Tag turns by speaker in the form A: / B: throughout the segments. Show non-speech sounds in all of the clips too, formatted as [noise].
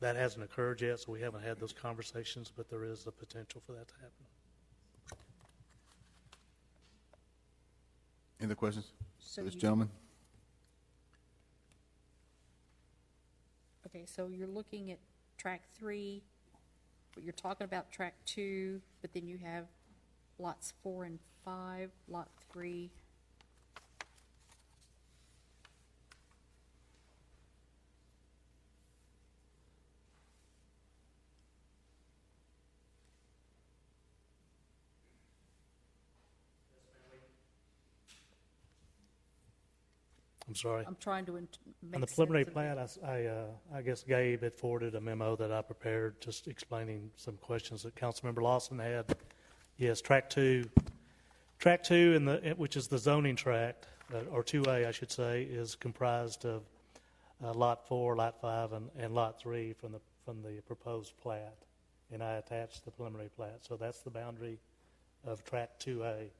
A: That hasn't occurred yet, so we haven't had those conversations, but there is the potential for that to happen.
B: Any other questions?
C: So
B: for This
C: you-
B: gentleman?
C: Okay, so you're looking at track three, but you're talking about track two, but then you have lots four and five, lot three.
A: I'm sorry.
C: I'm trying to int- make
A: On the
C: sense
A: preliminary
C: of it.
A: plat, I s- I, uh, I guess Gabe had forwarded a memo that I prepared, just explaining some questions that Councilmember Lawson had. Yes, track two, track two in the, eh, which is the zoning tract, uh, or two A, I should say, is comprised of uh, lot four, lot five, and, and lot three from the, from the proposed plat. And I attached the preliminary plat, so that's the boundary of track two A.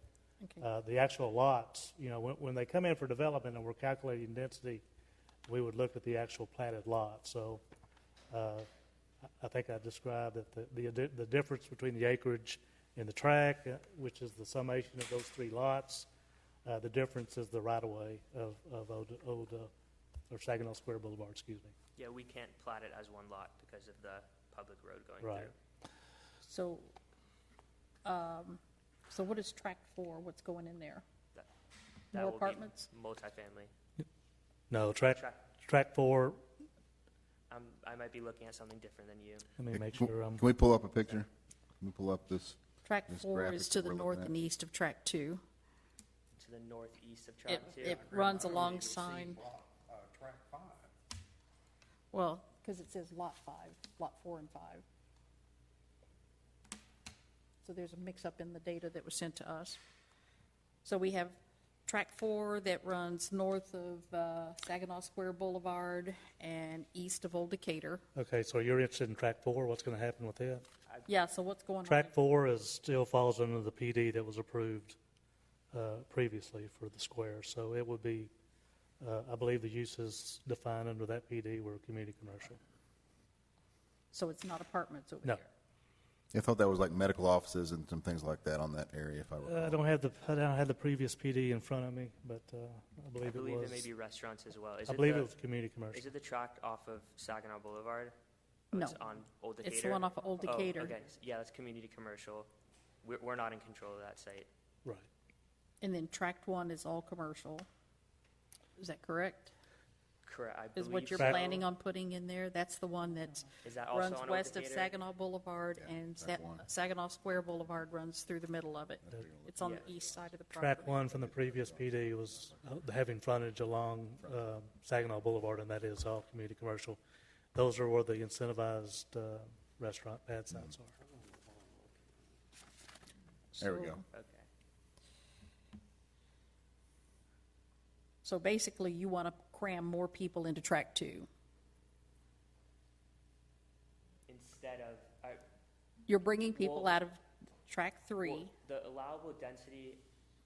C: Okay.
A: Uh, the actual lots, you know, when, when they come in for development and we're calculating density, we would look at the actual platted lot. So uh, I- I think I described that the- the, addi- the difference between the acreage and the tract, uh, which is the summation of those three lots, uh, the difference is the right-of-way of, of Old, Old, uh, or Saginaw Square Boulevard, excuse me.
D: Yeah, we can't plot it as one lot because of the public road going
A: Right.
D: through.
C: So, um, so what is track four? What's going in there?
D: That
C: More
D: will be
C: apartments?
D: Multifamily.
A: No, tract,
D: Track,
A: tract four,
D: I'm, I might be looking at something different than you.
A: let me make
B: Can-
A: sure I'm,
B: Can we pull up a picture? Can we pull up this?
C: Track
B: This
C: four
B: graphic
C: is
B: that
C: to the
B: we're looking
C: north
B: at.
C: and east of track two.
D: To the northeast of
C: It,
D: Track Two.
C: it runs alongside,
E: uh, Track five.
C: well, because it says lot five, lot four and five. So there's a mix-up in the data that was sent to us. So we have track four that runs north of uh, Saginaw Square Boulevard and east of Old Decatur.
A: okay, so you're interested in tract four, what's going to happen with that?
C: Yeah, so what's going on?
A: Track four is, still falls under the PD that was approved uh, previously for the square, so it would be, uh, I believe the uses defined under that PD were community commercial.
C: So it's not apartments over
A: No.
C: here?
B: I thought that was like medical offices and some things like that on that area, if I
A: Uh, I
B: recall.
A: don't have the, I don't have the previous PD in front of me, but uh, I
D: I
A: believe it
D: believe there may
A: was,
D: be restaurants as well. Is
A: I believe
D: the-
A: it was community
D: Is
A: commercial.
D: it the track off of Saginaw Boulevard? Oh, It's
C: No.
D: on Old Decatur?
C: It's the one off of Old
D: Oh,
C: Decatur.
D: okay. Yeah, that's community commercial. We're, we're not in control of that site.
A: Right.
C: And then tract one is all commercial. Is that correct?
D: Correct, I
C: Is
D: believe.
C: what you're
A: so.
C: planning on putting in there? That's the one that's
D: Is that also
C: runs
D: on Old
C: west of
D: Decatur?
C: Saginaw Boulevard
B: Yeah,
C: and
B: track
C: Sa-
B: one.
C: Saginaw Square Boulevard runs through the middle of it. It's on the
D: Yeah.
C: east side of the
A: Track
C: property.
A: one from the previous PD was uh, having frontage along uh, Saginaw Boulevard, and that is all community commercial. Those are where the incentivized uh, restaurant pad sites are.
B: There we
C: So-
B: go.
D: Okay.
C: So basically, you want to cram more people into track two.
D: Instead of, I-
C: You're bringing people
D: Well-
C: out of track
D: Well,
C: three.
D: The allowable density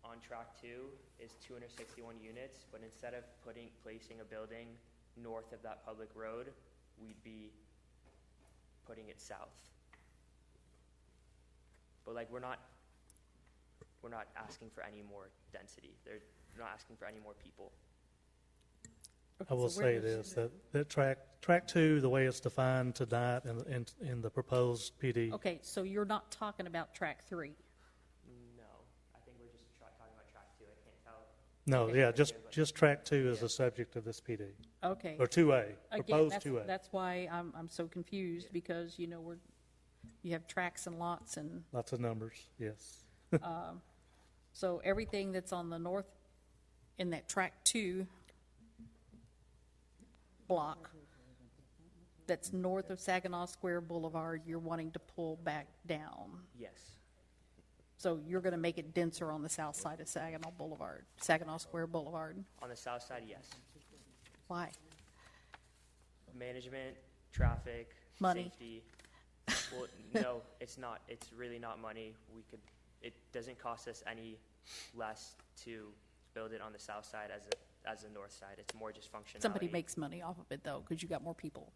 D: on track two is two hundred sixty-one units, but instead of putting, placing a building north of that public road, we'd be putting it south. But like, we're not, we're not asking for any more density. They're not asking for any more people.
C: Okay,
A: I will
C: so where
A: say
C: does-
A: this, that, that track, track two, the way it's defined tonight in, in, in the proposed PD,
C: Okay, so you're not talking about track three.
D: No, I think we're just tra- talking about track two. I can't tell.
A: no,
D: okay.
A: yeah, just, just track two is the subject of this PD,
C: Okay.
A: or two A,
C: Again,
A: proposed
C: that's,
A: two A.
C: that's why I'm, I'm so confused because, you know, we're, you have tracks and lots and,
A: Lots of numbers, yes.
C: so everything that's on the north in that track two block that's north of Saginaw Square Boulevard, you're wanting to pull back down.
D: Yes,
C: So you're going to make it denser on the south side of Saginaw Boulevard, Saginaw Square Boulevard.
D: on the south side, yes.
C: Why?
D: management, traffic,
C: Money.
D: safety. Well, [laughs] no, it's not. It's really not money. We could. It doesn't cost us any less to build it on the south side as a as the north side. It's more just functionality.
C: Somebody makes money off of it though, because you got more people.